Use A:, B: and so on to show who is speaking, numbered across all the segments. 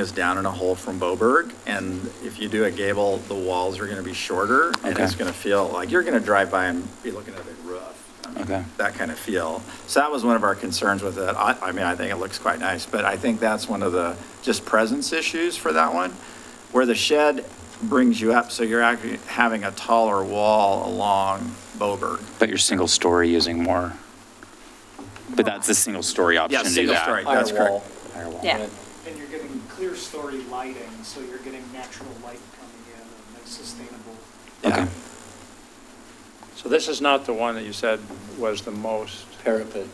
A: is down in a hole from Boberg, and if you do a gable, the walls are gonna be shorter, and it's
B: Okay.
A: gonna feel like, you're gonna drive by and be looking at the roof. I mean,
B: Okay.
A: That kind of feel. So that was one of our concerns with it. I, I mean, I think it looks quite nice, but I think that's one of the just presence issues for that one, where the shed brings you up, so you're actually having a taller wall along Boberg.
B: But you're single story using more, but that's a single story option
A: Yeah,
B: to do
A: single
B: that.
A: story, that's correct.
B: Higher wall.
C: Yeah.
D: And you're getting clear story lighting, so you're getting natural light coming in and it's sustainable.
B: Okay.
E: So this is not the one that you said was the most,
F: parapet.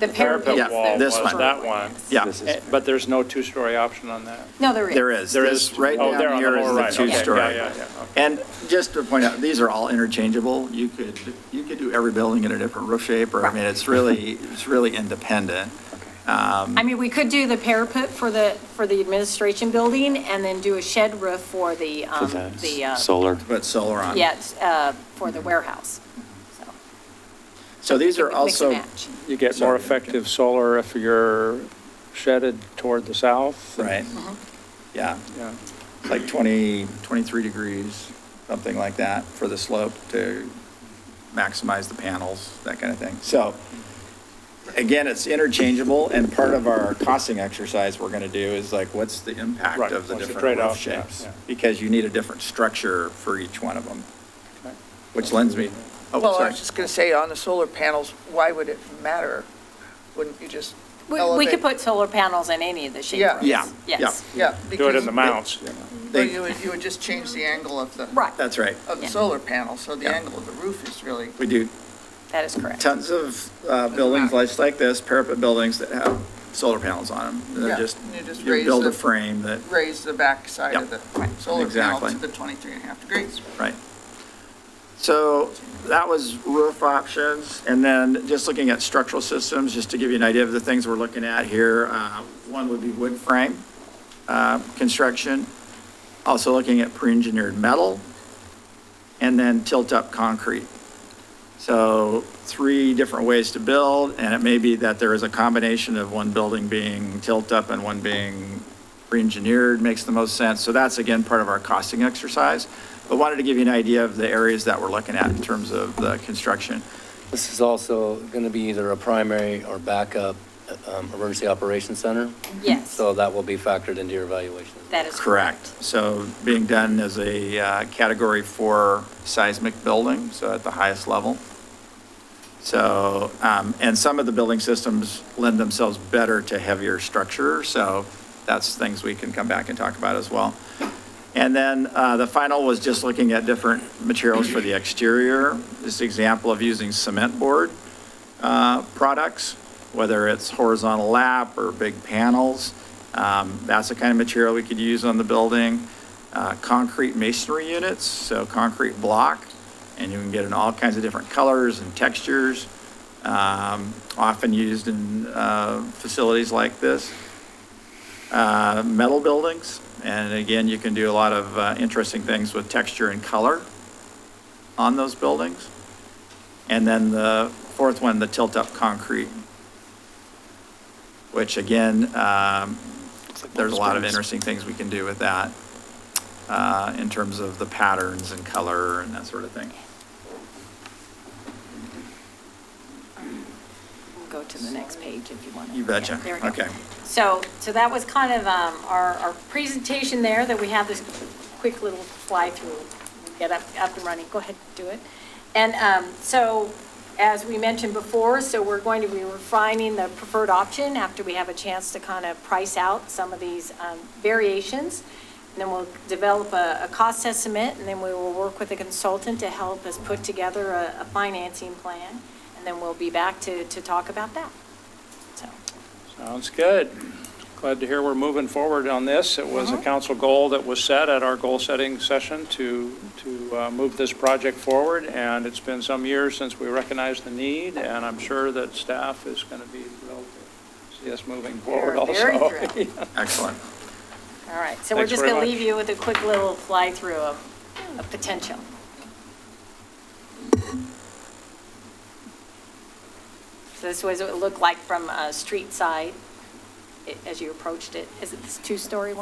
C: The parapet
A: Yeah,
C: is the.
A: this one.
C: short
E: That one.
C: yes.
A: Yeah.
B: This is-
E: Eh, but there's no two-story option on that?
C: No, there is.
A: There is.
E: There
A: This
E: is-
A: Right
E: oh, there
A: down
E: on the
A: here
E: lower
A: is
E: right,
A: the
E: okay, yeah,
A: two-story.
E: yeah, yeah, okay.
A: And just to point out, these are all interchangeable. You could, you could do every building in a different roof shape, or, I mean, it's really, it's really independent.
C: I mean, we could do the parapet for the, for the administration building and then do a shed roof for the,
B: For
C: um, the,
B: the
C: uh,
B: solar.
A: But solar on.
C: yes, uh, for the warehouse. So
A: So these
C: You
A: are
C: could mix and
A: also,
C: match.
E: You get more effective solar if you're shedded toward the south?
A: right,
C: Mm-hmm.
A: yeah,
E: Yeah.
A: like 20, 23 degrees, something like that, for the slope to maximize the panels, that kind of thing. So, again, it's interchangeable, and part of our costing exercise we're going to do is like, what's the
E: Right,
A: impact of the
E: what's
A: different
E: the
A: roof
E: trade-off? Yeah,
A: shapes?
E: yeah.
A: Because you need a different structure for each one of them,
E: Okay.
A: which lends me, oh,
G: Well, I
A: sorry.
G: was just going to say, on the solar panels, why would it matter? Wouldn't you just
C: we, we could
G: elevate?
C: put solar panels in any of the shed
G: Yeah.
C: roofs.
A: Yeah, yeah.
C: Yes.
G: Yeah.
E: Do it
G: because-
E: in the mounts.
G: Well, You would, Oh. you would just change the angle of the,
C: Right,
A: That's right.
G: of the
C: Yeah.
G: solar panel, so the
A: Yeah.
G: angle of the roof is really,
A: We do
C: that is correct.
A: tons of uh, buildings like like this, parapet buildings that have solar panels on them. They're
G: Yeah,
A: just,
G: you just
A: you
G: raise
A: build a
G: the-
A: frame that,
G: raise the back side of the solar panel
A: exactly.
G: to the 23 and a half degrees.
A: right. So that was roof options. And then just looking at structural systems, just to give you an idea of the things we're looking at here. uh, One would be wood frame uh, construction. Also looking at pre-engineered metal and then tilt-up concrete. So three different ways to build, and it may be that there is a combination of one building being tilt-up and one being pre-engineered makes the most sense. So that's, again, part of our costing exercise. But wanted to give you an idea of the areas that we're looking at in terms of the construction.
F: This is also going to be either a primary or backup um, emergency operations center,
C: Yes,
F: so that will be factored into your evaluation. as well.
C: that is
A: Correct.
C: correct.
A: So being done as a uh, Category 4 seismic building, so at the highest level. So, um, and some of the building systems lend themselves better to heavier structure, so that's things we can come back and talk about as well. And then uh, the final was just looking at different materials for the exterior. This example of using cement board uh, products, whether it's horizontal lap or big panels. Um, That's the kind of material we could use on the building. Uh, Concrete masonry units, so concrete block, and you can get in all kinds of different colors and textures, um, often used in uh, facilities like this. Uh, Metal buildings, and again, you can do a lot of uh, interesting things with texture and color on those buildings. And then the fourth one, the tilt-up concrete, which again, um, there's a lot of interesting things we can do with that uh, in terms of the patterns and color and that sort of thing.
C: Go to the next page if you want to.
A: You betcha.
C: There we go.
A: Okay.
C: So, so that was kind of um, our, our presentation there, that we had this quick little fly-through, get up, up and running, go ahead, do it. And um, so, as we mentioned before, so we're going to be refining the preferred option after we have a chance to kind of price out some of these um, variations. And then we'll develop a, a cost estimate, and then we will work with a consultant to help us put together a, a financing plan. And then we'll be back to, to talk about that, so.
E: Sounds good. Glad to hear we're moving forward on this. It was a
C: Uh-huh.
E: council goal that was set at our goal-setting session to, to uh, move this project forward, and it's been some years since we recognized the need, and I'm sure that staff is going to be thrilled to see us moving forward
C: We're
E: also.
C: very thrilled.
A: Excellent.
C: All right, so we're
E: Thanks
C: just
E: very
C: going to
E: much.
C: leave you with a quick little fly-through of, of potential. So this was what it looked like from a street side i- as you approached it. Is it this two-story one?